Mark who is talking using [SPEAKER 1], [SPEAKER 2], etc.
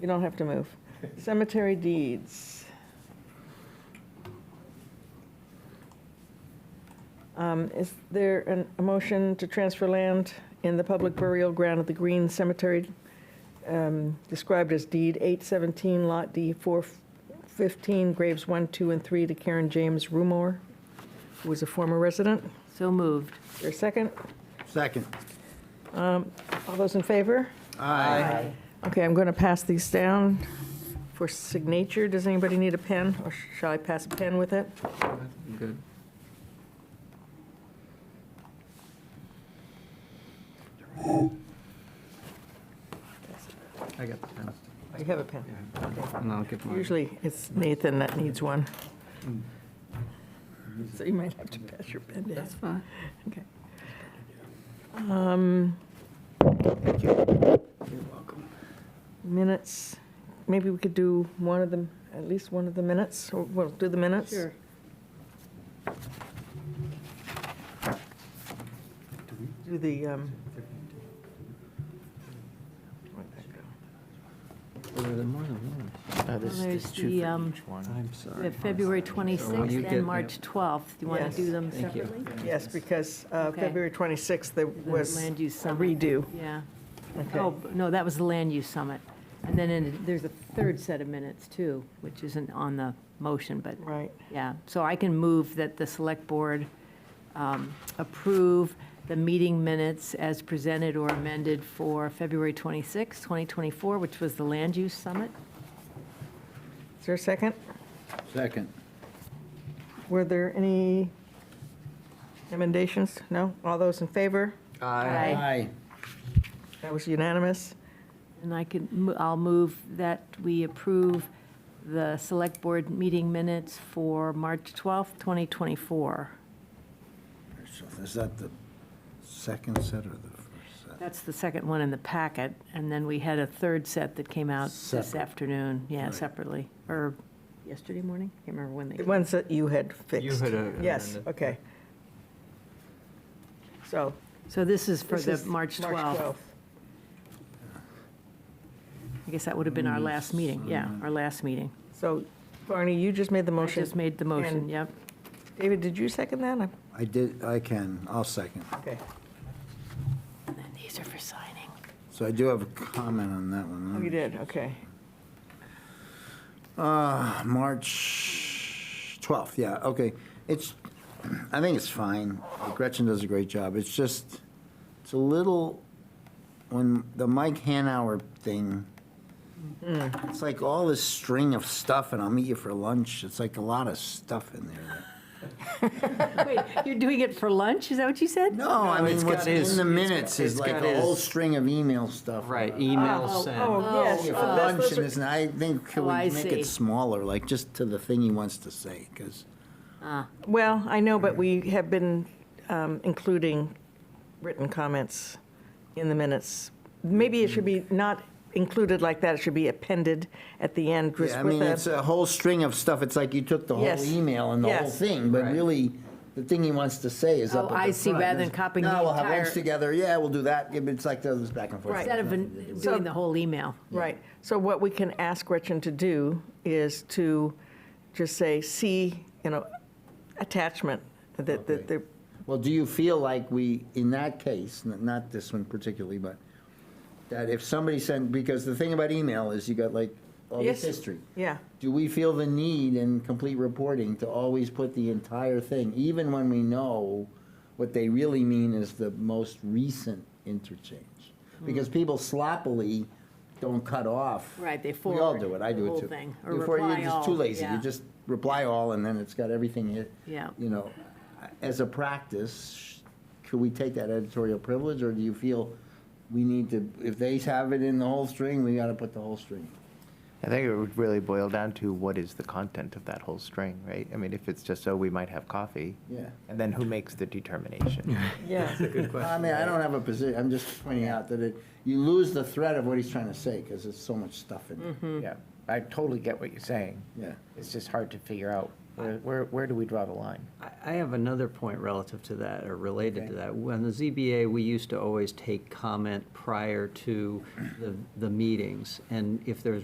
[SPEAKER 1] You don't have to move. Cemetery deeds. Um, Is there an- a motion to transfer land in the public burial ground at the Green Cemetery, um, described as deed 817, Lot D 415, graves 1, 2, and 3 to Karen James Rumor, who was a former resident?
[SPEAKER 2] So moved.
[SPEAKER 1] Is there a second?
[SPEAKER 3] Second.
[SPEAKER 1] All those in favor?
[SPEAKER 3] Aye.
[SPEAKER 1] Okay, I'm going to pass these down for signature. Does anybody need a pen, or shall I pass a pen with it?
[SPEAKER 4] Good. I got the pen.
[SPEAKER 1] Oh, You have a pen.
[SPEAKER 4] And I'll give mine. Mm.
[SPEAKER 1] Usually, it's Nathan that needs one. So you might have to pass your pen down.
[SPEAKER 2] That's fine.
[SPEAKER 1] Okay. Um,
[SPEAKER 3] You're welcome.
[SPEAKER 1] Minutes, maybe we could do one of them, at least one of the minutes, or we'll do the minutes?
[SPEAKER 2] Sure.
[SPEAKER 1] Do the, um,
[SPEAKER 4] Oh, there are more than one.
[SPEAKER 2] Well, There's the, um,
[SPEAKER 4] I'm
[SPEAKER 2] we
[SPEAKER 4] sorry.
[SPEAKER 2] have February
[SPEAKER 4] you
[SPEAKER 2] 26th
[SPEAKER 4] get-
[SPEAKER 2] and March 12th. Do you want
[SPEAKER 1] Yes.
[SPEAKER 2] to do them
[SPEAKER 4] Thank you.
[SPEAKER 2] separately?
[SPEAKER 1] yes, because uh,
[SPEAKER 2] Okay.
[SPEAKER 1] February 26th, there
[SPEAKER 2] The
[SPEAKER 1] was a
[SPEAKER 2] Land use summit.
[SPEAKER 1] redo.
[SPEAKER 2] Yeah.
[SPEAKER 1] Okay.
[SPEAKER 2] Oh, b- no, that was the land use summit. And then in- there's a third set of minutes too, which isn't on the motion, but
[SPEAKER 1] Right.
[SPEAKER 2] Yeah, so I can move that the select board um, approve the meeting minutes as presented or amended for February 26, 2024, which was the land use summit.
[SPEAKER 1] Is there a second?
[SPEAKER 3] Second.
[SPEAKER 1] Were there any emendations? No? All those in favor?
[SPEAKER 2] Aye.
[SPEAKER 1] That was unanimous.
[SPEAKER 2] And I could, mo- I'll move that we approve the select board meeting minutes for March twelfth, 2024.
[SPEAKER 3] So Is that the second set or the first set?
[SPEAKER 2] That's the second one in the packet, and then we had a third set that came out this
[SPEAKER 3] Separate.
[SPEAKER 2] afternoon, yeah,
[SPEAKER 3] Right.
[SPEAKER 2] separately, or yesterday morning? Can't remember when they
[SPEAKER 1] The
[SPEAKER 2] came
[SPEAKER 1] ones that you had fixed.
[SPEAKER 4] had, uh,
[SPEAKER 1] Yes,
[SPEAKER 4] amended.
[SPEAKER 1] okay. So.
[SPEAKER 2] So this is for
[SPEAKER 1] this
[SPEAKER 2] the
[SPEAKER 1] is
[SPEAKER 2] March 12th. I guess that would have been our last meeting, yeah, our last meeting.
[SPEAKER 1] So Barney, you just made the
[SPEAKER 2] I
[SPEAKER 1] motion.
[SPEAKER 2] just made the motion,
[SPEAKER 1] And-
[SPEAKER 2] yep.
[SPEAKER 1] David, did you second that? I'm-
[SPEAKER 3] I did, I can, I'll second.
[SPEAKER 1] Okay.
[SPEAKER 2] And then these are for signing.
[SPEAKER 3] So I do have a comment on that one.
[SPEAKER 1] Oh, you did, okay.
[SPEAKER 3] Uh, March 12th, yeah, okay. It's, I think it's fine. Gretchen does a great job. It's just, it's a little, when the Mike Hanauer thing,
[SPEAKER 4] Mm-hmm.
[SPEAKER 3] it's like all this string of stuff, and I'll meet you for lunch. It's like a lot of stuff in there.
[SPEAKER 2] Wait, you're doing it for lunch, is that what you said?
[SPEAKER 3] No, I
[SPEAKER 4] it's
[SPEAKER 3] mean, what's
[SPEAKER 4] got his-
[SPEAKER 3] in the
[SPEAKER 4] it's got-
[SPEAKER 3] minutes is
[SPEAKER 4] it's
[SPEAKER 3] like
[SPEAKER 4] got
[SPEAKER 3] a
[SPEAKER 4] his-
[SPEAKER 3] whole string of email stuff.
[SPEAKER 4] Right,
[SPEAKER 3] about-
[SPEAKER 4] email
[SPEAKER 2] Oh,
[SPEAKER 4] sent.
[SPEAKER 1] Oh, yes.
[SPEAKER 3] Yeah,
[SPEAKER 1] oh,
[SPEAKER 3] for
[SPEAKER 1] that's-
[SPEAKER 3] lunch
[SPEAKER 1] those
[SPEAKER 3] and
[SPEAKER 1] are-
[SPEAKER 3] uh, this, and I think, can
[SPEAKER 2] Oh, I
[SPEAKER 3] we make
[SPEAKER 2] see.
[SPEAKER 3] it smaller, like just to the thing he wants to say? Because
[SPEAKER 1] Well, I know, but we have been um, including written comments in the minutes. Maybe it should be not included like that, it should be appended at the end just
[SPEAKER 3] Yeah, I
[SPEAKER 1] with
[SPEAKER 3] mean,
[SPEAKER 1] a-
[SPEAKER 3] it's a whole string of stuff. It's like you took the whole
[SPEAKER 1] Yes.
[SPEAKER 3] email and the whole
[SPEAKER 1] Yes.
[SPEAKER 3] thing, but
[SPEAKER 4] Right.
[SPEAKER 3] really, the thing he wants to say is up
[SPEAKER 2] Oh,
[SPEAKER 3] at
[SPEAKER 2] I
[SPEAKER 3] the
[SPEAKER 2] see,
[SPEAKER 3] front.
[SPEAKER 2] rather than
[SPEAKER 3] It's,
[SPEAKER 2] copying
[SPEAKER 3] No,
[SPEAKER 2] the
[SPEAKER 3] we'll have lunch
[SPEAKER 2] entire-
[SPEAKER 3] together. Yeah, we'll do that. Yeah, but It's like those back and forth.
[SPEAKER 1] Right.
[SPEAKER 2] Instead of an- doing the whole email.
[SPEAKER 1] Right. So what we can ask Gretchen to do is to just say, see, you know, attachment, that, that,
[SPEAKER 3] Okay.
[SPEAKER 1] that-
[SPEAKER 3] Well, do you feel like we, in that case, n- not this one particularly, but that if somebody sent, because the thing about email is you got like all
[SPEAKER 1] Yes.
[SPEAKER 3] Oh, this history.
[SPEAKER 1] yeah,
[SPEAKER 3] Do we feel the need in complete reporting to always put the entire thing, even when we know what they really mean is the most recent interchange? Because people sloppily don't cut off.
[SPEAKER 2] Mm. Right, they
[SPEAKER 3] We all
[SPEAKER 2] forward
[SPEAKER 3] do it, I
[SPEAKER 2] the
[SPEAKER 3] do
[SPEAKER 2] whole
[SPEAKER 3] it too.
[SPEAKER 2] thing, or
[SPEAKER 3] You forward-
[SPEAKER 2] reply
[SPEAKER 3] You're just too
[SPEAKER 2] all,
[SPEAKER 3] lazy,
[SPEAKER 2] yeah.
[SPEAKER 3] you just reply all, and then it's got everything hit.
[SPEAKER 2] Yeah.
[SPEAKER 3] You know, as a practice, could we take that editorial privilege, or do you feel we need to, if they have it in the whole string, we gotta put the whole string?
[SPEAKER 5] I think it would really boil down to what is the content of that whole string, right? I mean, if it's just, oh, we might have coffee.
[SPEAKER 3] Yeah.
[SPEAKER 5] And then who makes the determination?
[SPEAKER 1] yeah.
[SPEAKER 4] Good
[SPEAKER 3] I
[SPEAKER 4] question.
[SPEAKER 3] mean, I don't have a position, I'm just pointing out that it, you lose the thread of what he's trying to say, because there's so much stuff in there.
[SPEAKER 6] Yeah, I totally get what you're saying.
[SPEAKER 3] Yeah.
[SPEAKER 6] It's just hard to figure out, where, where, where do we draw the line?
[SPEAKER 4] I I have another point relative to that, or related to
[SPEAKER 3] Okay.
[SPEAKER 4] that. When the ZBA, we used to always take comment prior to the, the meetings. And if there's